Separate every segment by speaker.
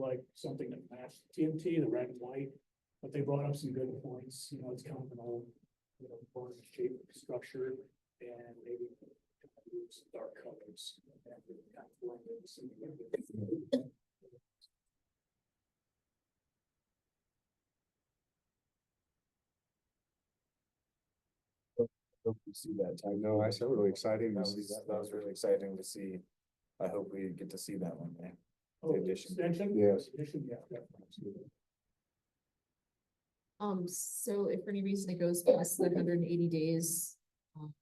Speaker 1: like something that matched TNT, the red and white. But they brought up some good points, you know, it's kind of an old, you know, barn shape structure and maybe kind of use dark colors. and really kind of blend in some of the-
Speaker 2: Hope we see that. I know, I said really exciting.
Speaker 3: That
Speaker 2: to see
Speaker 3: was, that was really exciting to see. I hope we get to see that one day.
Speaker 1: Oh,
Speaker 3: addition.
Speaker 1: Extension?
Speaker 2: Yes.
Speaker 1: Addition, yeah, definitely.
Speaker 4: Um, so if for any reason it goes past the hundred and eighty days. um,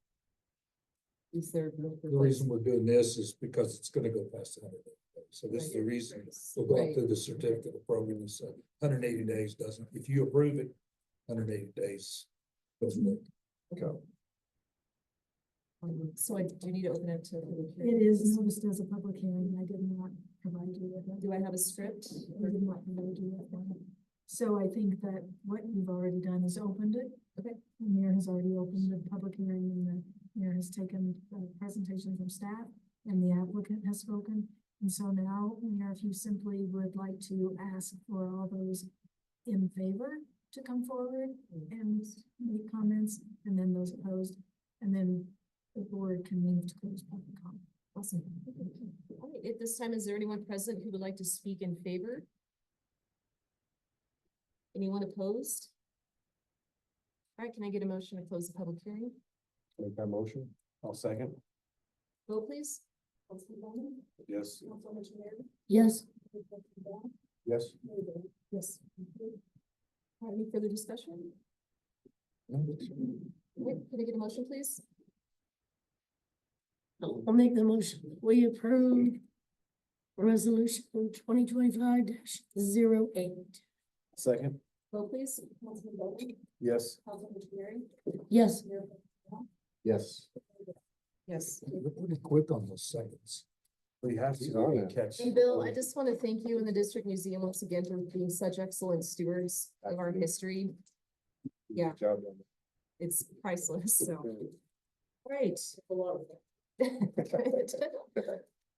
Speaker 4: Is there? room for
Speaker 5: The reason we're doing this is because it's gonna go past the hundred days. So this is the reason we'll
Speaker 4: flexibility?
Speaker 5: go through the certificate of program is hundred and eighty days doesn't, if you approve it, hundred and eighty days. doesn't work.
Speaker 4: Right. Um, So I do need to open it to. a public hearing.
Speaker 6: It is noticed as a public hearing, and I did not provide you with it.
Speaker 4: Do I have a script?
Speaker 6: I did not provide you with one. So I think that what you've already done is opened it.
Speaker 4: Okay.
Speaker 6: The mayor has already opened the public hearing, and the mayor has taken a presentation from staff, and the applicant has spoken. And so now, Mayor, if you simply would like to ask for all those in favor to come forward and make comments, and then those opposed, and then the board can move to close public comment.
Speaker 4: Awesome. All right, At this time, is there anyone present who would like to speak in favor? Anyone opposed? All right, can I get a motion to close the public hearing?
Speaker 2: Make that motion. I'll second.
Speaker 4: Vote please.
Speaker 2: Yes.
Speaker 6: Yes.
Speaker 2: Yes.
Speaker 4: Yes. All right, Any further discussion? Wait, Can I get a motion, please?
Speaker 6: I'll make the motion. We approve resolution twenty twenty-five 8
Speaker 2: Second.
Speaker 4: Vote please.
Speaker 2: Yes.
Speaker 6: Yes.
Speaker 2: Yes.
Speaker 4: Yes.
Speaker 5: We're pretty quick on those seconds.
Speaker 2: We have
Speaker 5: He's
Speaker 2: to on
Speaker 5: gonna
Speaker 2: it.
Speaker 5: catch.
Speaker 4: And Bill, I just want to thank you and the district museum once again for being such excellent stewards of our
Speaker 2: Absolutely.
Speaker 4: history. Yeah.
Speaker 2: Good job done.
Speaker 4: It's priceless, so, great. Good.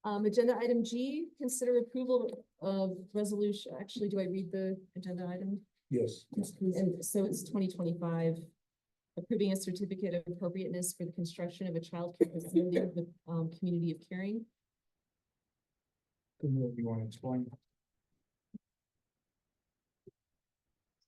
Speaker 4: Um, agenda item G, consider approval of resolution, actually, do I read the agenda item?
Speaker 5: Yes.
Speaker 4: And so it's twenty twenty-five. Approving a certificate of appropriateness for the construction of a childcare facility in the, um, community of Caring.
Speaker 2: You want to explain?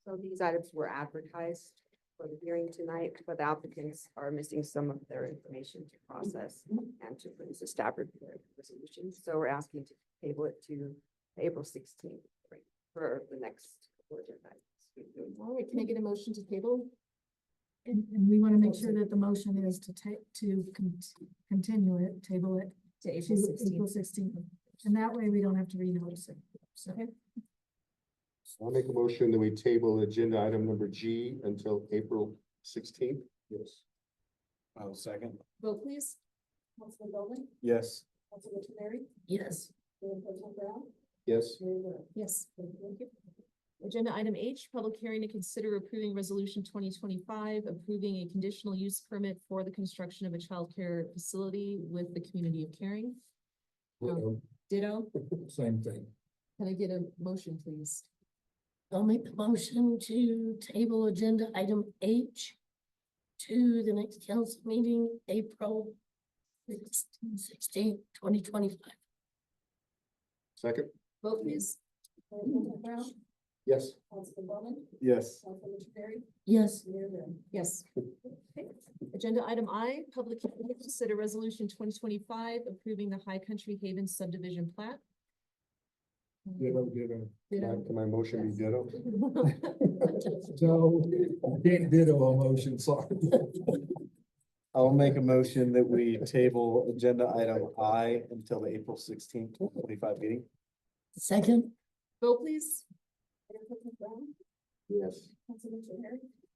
Speaker 7: So these items were advertised for the hearing tonight, but the applicants are missing some of their information to process and to produce a staff review of the resolution. So we're asking to table it to April sixteenth for the next. agenda item.
Speaker 4: All right, can I get a motion to table?
Speaker 6: And, and we want to make sure that the motion is to take, to con- continue it, table it
Speaker 4: To
Speaker 6: to April sixteenth. And that way we don't have to renotice it. So
Speaker 2: I'll make a motion that we table agenda item number G until April sixteenth. Yes. I'll second.
Speaker 4: Vote please.
Speaker 2: Yes.
Speaker 4: Yes.
Speaker 2: Yes.
Speaker 4: Yes. Agenda item H, public hearing to consider approving resolution twenty twenty-five, approving a conditional use permit for the construction of a childcare facility with the community of caring.
Speaker 5: Uh-oh,
Speaker 4: Ditto,
Speaker 5: Same thing.
Speaker 4: can I get a motion, please?
Speaker 8: I'll make the motion to table agenda item H to the next council meeting, April sixteenth, twenty twenty-five.
Speaker 2: Second.
Speaker 4: Vote please.
Speaker 2: Yes. Yes.
Speaker 8: Yes,
Speaker 4: Yes. Okay. Agenda item I, public hearing to consider resolution twenty twenty-five, approving the High Country Haven subdivision plat.
Speaker 2: Ditto, ditto.
Speaker 4: Ditto.
Speaker 2: Can my motion be ditto?
Speaker 5: So, can't ditto a motion, sorry.
Speaker 3: I'll make a motion that we table agenda item I until the April sixteenth, twenty-five meeting.
Speaker 8: second,
Speaker 4: Vote please.
Speaker 2: Yes.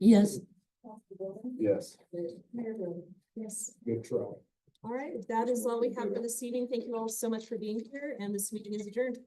Speaker 8: yes,
Speaker 2: Yes.
Speaker 4: Yes.
Speaker 5: Good try.
Speaker 4: All right, that is all we have for this evening. Thank you all so much for being here, and this meeting is adjourned.